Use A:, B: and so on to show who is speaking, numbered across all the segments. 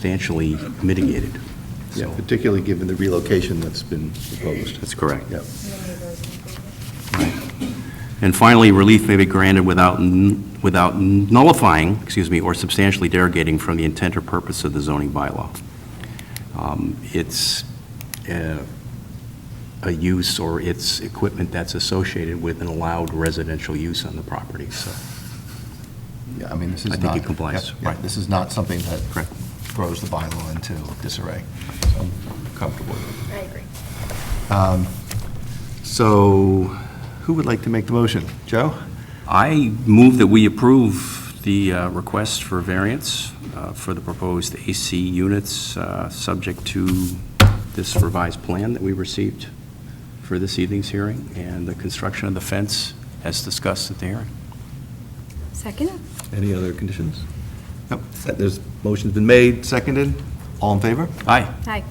A: substantially mitigated.
B: Yeah,
A: So-
B: particularly given the relocation that's been proposed.
A: That's correct.
B: Yep.
A: And finally, relief may be granted without, n- without nullifying, excuse me, or substantially derogating from the intent or purpose of the zoning bylaw. Um, It's uh, a use or it's equipment that's associated with an allowed residential use on the property, so.
C: Yeah, I mean, this
A: I
C: is
A: think
C: not.
A: it complies.
C: yeah, yeah,
A: Right.
C: This is not something that
A: Correct.
C: throws the bylaw into disarray. So I'm comfortable with
D: I agree.
C: it. Um, So who would like to make the motion? Joe?
A: I move that we approve the uh, request for variance uh, for the proposed AC units, uh, subject to this revised plan that we received for this evening's hearing, and the construction of the fence as discussed at the hearing.
D: Second?
C: Any other conditions? Yep, there's, motion's been made, seconded. All in favor?
A: Aye.
D: Aye.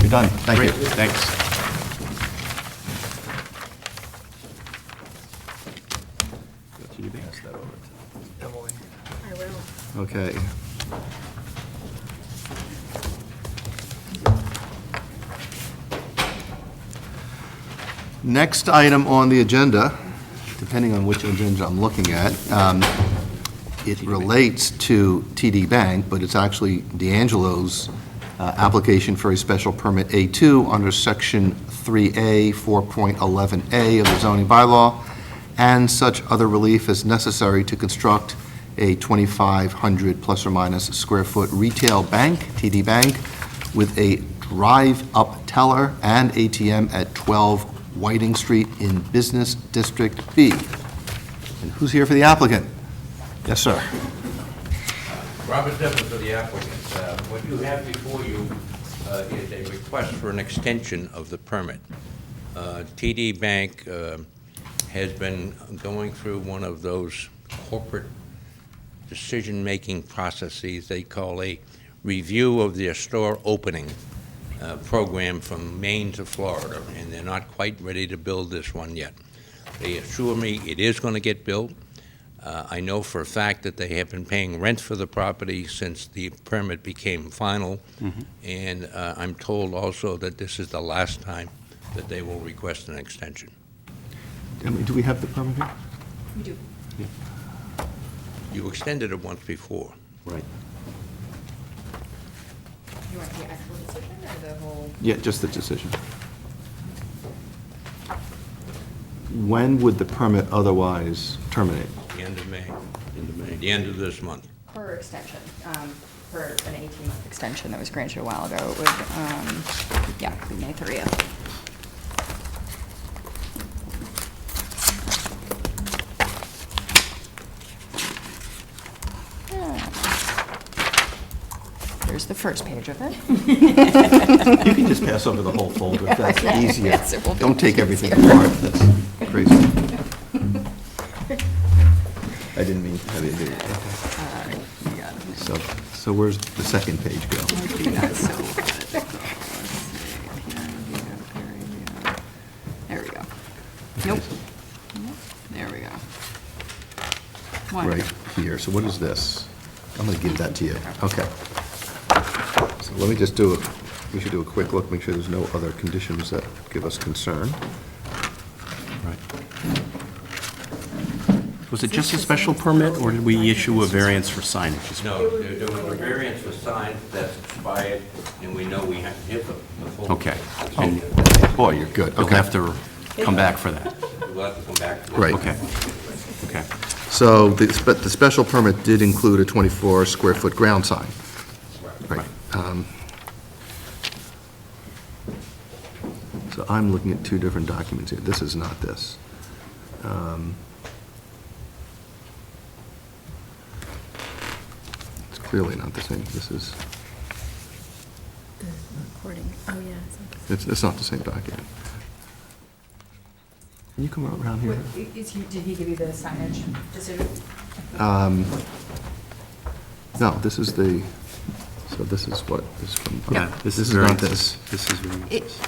C: You're done. Thank you.
A: Great, Thanks.
C: Pass that over to Emily.
D: I will.
C: Okay. Next item on the agenda, depending on which agenda I'm looking at, um, it relates to TD Bank, but it's actually D'Angelo's uh, application for a special permit A2 under Section 3A, 4.11A of the zoning bylaw, and such other relief as necessary to construct a 2,500 plus or minus square foot retail bank, TD Bank, with a drive-up teller and ATM at 12 Whiting Street in Business District B. And who's here for the applicant? Yes, sir.
E: Robert Devlin for the applicant. Uh, What you have before you uh, is a request for an extension of the permit. Uh, TD Bank uh, has been going through one of those corporate decision-making processes they call a review of their store opening uh, program from Maine to Florida, and they're not quite ready to build this one yet. They assure me it is going to get built. Uh, I know for a fact that they have been paying rent for the property since the permit became final, and uh, I'm told also that this is the last time that they will request an extension.
C: Emily, do we have the permit here?
E: You extended it once before.
A: Right.
F: You want the actual decision or the whole?
C: Yeah, just the decision. When would the permit otherwise terminate?
E: The end of May. End of May. The end of this month.
F: Per extension, um, per an 18-month extension that was granted a while ago, it would, um, yeah, be May 30th. Ah. Hmm. There's the first page of it.
C: You can just pass over the whole folder, if that's easier.
F: Yes, it will be
C: Don't take everything
F: easier.
C: apart, that's crazy. I didn't mean, I didn't do it.
F: Yeah.
C: So, so where's the second page go?
F: There we go. Nope. Nope. There we go. One.
C: Right here, so what is this? I'm going to give that to you, okay. So let me just do, a. we should do a quick look, make sure there's no other conditions that give us concern.
A: Was it just a special permit, or did we issue a variance for signage?
E: No, there there was a variance for signs that's expired, and we know we have to hit the the full.
A: Okay.
E: And Oh.
C: Boy, you're good,
A: You'll
C: okay.
A: have to come back for that.
E: We'll have to come back to that.
C: Right.
A: Okay. Okay.
C: So, the spe- the special permit did include a 24-square-foot ground sign. Right. Um, So I'm looking at two different documents here. This is not this. Um, It's clearly not the same. This is,
D: The recording, oh, yeah. it's on.
C: it's it's not the same document. Can you come around here?
F: Is he, did he give you the signage decision?
C: Um, No, this is the, so this is what is from.
A: Yeah, this is
C: not
A: variances.
C: this.
A: This is variances.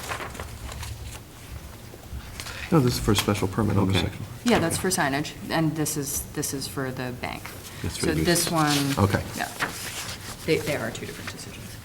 C: No, this is for a special permit under
A: Okay.
C: section.
F: Yeah, that's for signage, and this is, this is for the bank.
A: That's for
F: So
A: uses.
F: this one.
C: Okay.
F: Yeah. They, they are two different